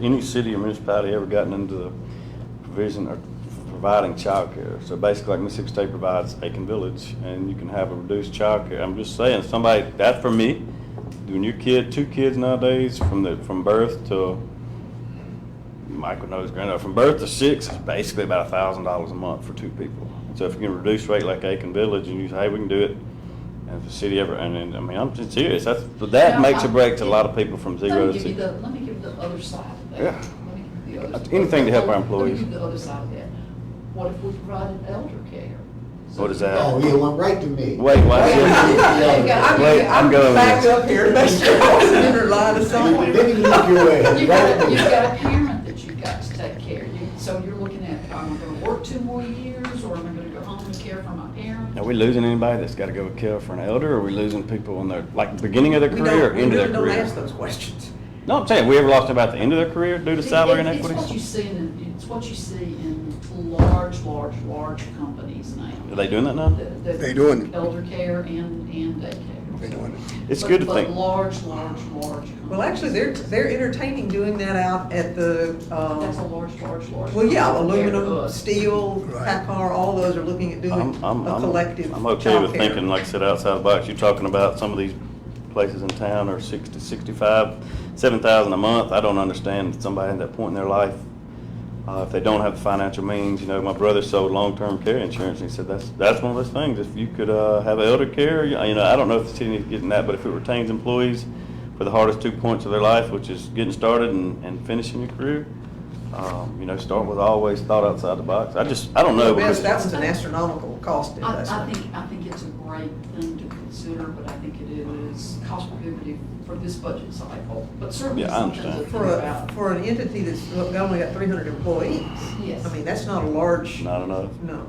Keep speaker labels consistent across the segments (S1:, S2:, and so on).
S1: Any city or municipality ever gotten into the provision of providing childcare? So basically, like Mississippi State provides Aiken Village, and you can have a reduced childcare. I'm just saying, somebody, that for me, when your kid, two kids nowadays, from the, from birth to, Michael knows, granddad, from birth to six, is basically about a thousand dollars a month for two people. So if you can reduce rate like Aiken Village, and you say, hey, we can do it, and if the city ever, and, and, I mean, I'm just serious, that's, but that
S2: No,
S1: makes a
S2: I-
S1: break to a lot of people from zero
S2: Let me
S1: to
S2: give you
S1: six.
S2: the, let me give you the other side of that.
S1: Yeah. Uh,
S2: Let me give you the other-
S1: Anything to help our
S2: Let
S1: employees.
S2: me give you the other side of that. What if we provided elder care? So
S1: What is that?
S3: Oh, you went right to me.
S1: Wait, why is
S2: There you go.
S1: it?
S2: I'm-
S1: Wait, I'm going.
S4: Back up here, make sure it's in her line of
S3: You
S4: sight.
S3: didn't look your way, right
S2: You've got,
S3: to
S2: you've
S3: me.
S2: got a parent that you've got to take care of. You- So you're looking at, am I gonna work two more years, or am I gonna go home and care for my parent?
S1: Are we losing anybody that's got to go kill for an elder? Or are we losing people in their like beginning of their
S4: We
S1: career or
S4: don't, we
S1: end of their
S4: really don't
S1: career?
S4: ask those questions.
S1: No, I'm saying we ever lost anybody at the end of their career due to salary
S2: It- it- It's what you
S1: inequities?
S2: see in, it's what you see in large, large, large companies now.
S1: Are they doing that now?
S2: They
S5: They doing it.
S2: Elder care and, and daycare.
S5: They doing it.
S1: It's
S2: But-
S1: good to think-
S2: But large, large, large.
S4: Well, actually, they're, they're entertaining doing that out at the,
S2: That's uh, a
S4: um,
S2: large, large, large.
S4: well, yeah,
S2: company compared to
S4: aluminum,
S2: us.
S4: steel,
S5: Right.
S4: Packard, all those are looking at doing
S1: I'm, I'm,
S4: a
S1: I'm,
S4: collective
S1: I'm okay with
S4: childcare.
S1: thinking, like I said, outside the box. You're talking about some of these places in town are sixty, sixty-five, seven thousand a month. I don't understand somebody at that point in their life. Uh, if they don't have the financial means, you know, my brother sold long-term care insurance, and he said that's that's one of those things. If you could uh, have elder care, you you know, I don't know if the city is getting that, but if it retains employees for the hardest two points of their life, which is getting started and, and finishing your career, um, you know, start with always thought outside the box. I just I don't know.
S4: Yes,
S1: because-
S4: that's an astronomical cost
S2: I, I
S4: investment.
S2: think, I think it's a great thing to consider, but I think it is cost prohibitive for this budget cycle, but certainly
S1: Yeah, I
S2: something to
S1: understand.
S2: think
S4: For a,
S2: about.
S4: for an entity that's only got three hundred employees,
S2: Yes.
S4: I mean, that's not a large,
S1: not enough.
S4: no.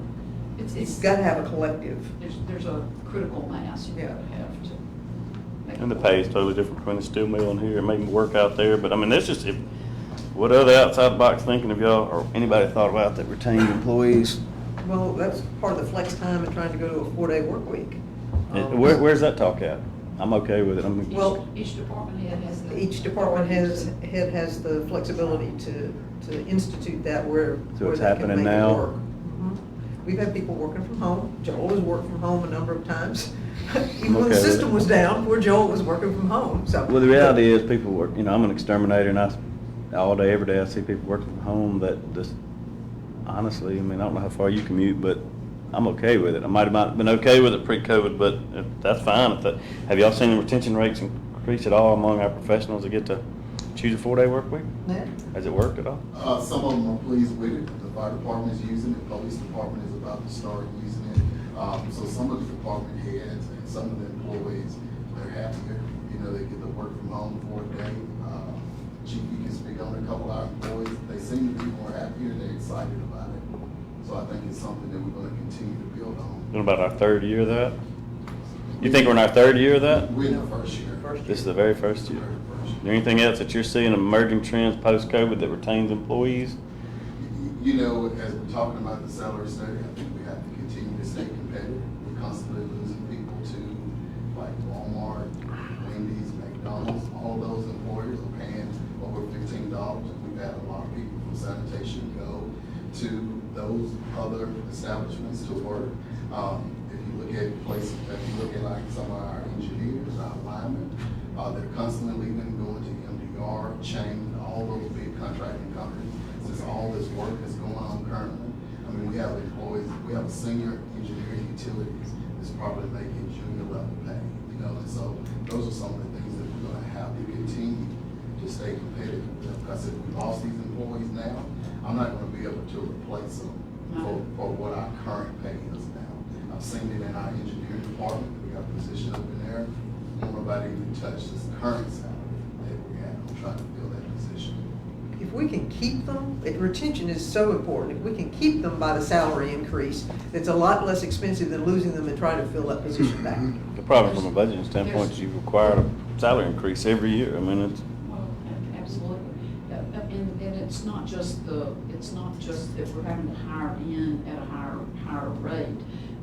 S2: It's,
S4: You've
S2: it's,
S4: got to have a collective.
S2: there's, there's a critical mass you
S4: Yeah.
S2: gotta have to. make
S1: And the
S2: it
S1: pay is totally different between the steel mill and here, it may work out there, but I mean, that's just, if, what other outside the box thinking of y'all, or anybody thought about that retained employees?
S4: Well, that's part of the flex time and trying to go to a four-day work week.
S1: It-
S4: Um,
S1: Where, where's that talk at? I'm okay with it, I'm,
S4: Well-
S2: Each, each department head has the.
S4: Each department has, head has the flexibility to, to institute that where,
S1: So
S4: where
S1: it's
S4: they can
S1: happening
S4: make it
S1: now?
S4: work. Mhm. We've had people working from home. Joel has worked from home a number of times. Even
S1: okay
S4: when
S1: with
S4: the
S1: it.
S4: system was down, poor Joel was working from home, so.
S1: well, the reality is, people work, you know, I'm an exterminator, and I, s- all day, every day, I see people working from home that just, honestly, I mean, I don't know how far you commute, but I'm okay with it. I might have not been okay with it pre-COVID, but if- that's fine, if that, have y'all seen the retention rates increase at all among our professionals that get to choose a four-day work week?
S4: Yeah.
S1: Has it worked at all?
S6: Uh, some of them are pleased with it. The fire department is using it, police department is about to start using it. Um, so some of the department heads and some of the employees, they're happier. You know, they get to work from home for a day. Uh, Chief, you can speak on a couple of our employees. They seem to be more happier and they're excited about it. So I think it's something that we're gonna continue to build on.
S1: In about our third year of that? You think we're in our third year of that?
S6: We're in the first year.
S1: This is the very first year.
S6: Very first year.
S1: Is there anything else that you're seeing emerging trends post-COVID that retains employees?
S6: You know, as we're talking about the salary study, I think we have to continue to stay competitive. We're constantly losing people to like Walmart, Wendy's, McDonald's, all those employers are paying over fifteen dollars. We've had a lot of people from sanitation go to those other establishments to work. Um, if you look at places, if you look at like some of our engineers, our linemen, uh, they're constantly leaving, going to MDR, chain, all those big contracting companies. Since all this work is going on currently, I mean, we have employees, we have a senior engineer in utilities that's probably making junior level pay, you know, and so those are some of the things that we're gonna have to continue to stay competitive. Because if we lost these employees now, I'm not gonna be able to replace them for, for what our current pay is now. I've seen it in our engineering department, we got a position up in there, nobody even touched this current salary that we have, I'm trying to fill that position.
S4: If we can keep them, it- retention is so important. If we can keep them by the salary increase, it's a lot less expensive than losing them and trying to fill that position back.
S1: The problem from a budgeting standpoint is you require a salary increase every year. I mean, it's,
S2: Well, a- absolutely. Uh, uh, And, and it's not just the, it's not just that we're having to hire in at a higher, higher rate.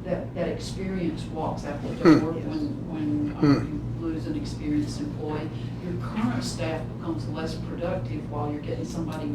S2: That, that experience walks after the door when, when uh, you lose an experienced employee, your current staff becomes less productive while you're getting somebody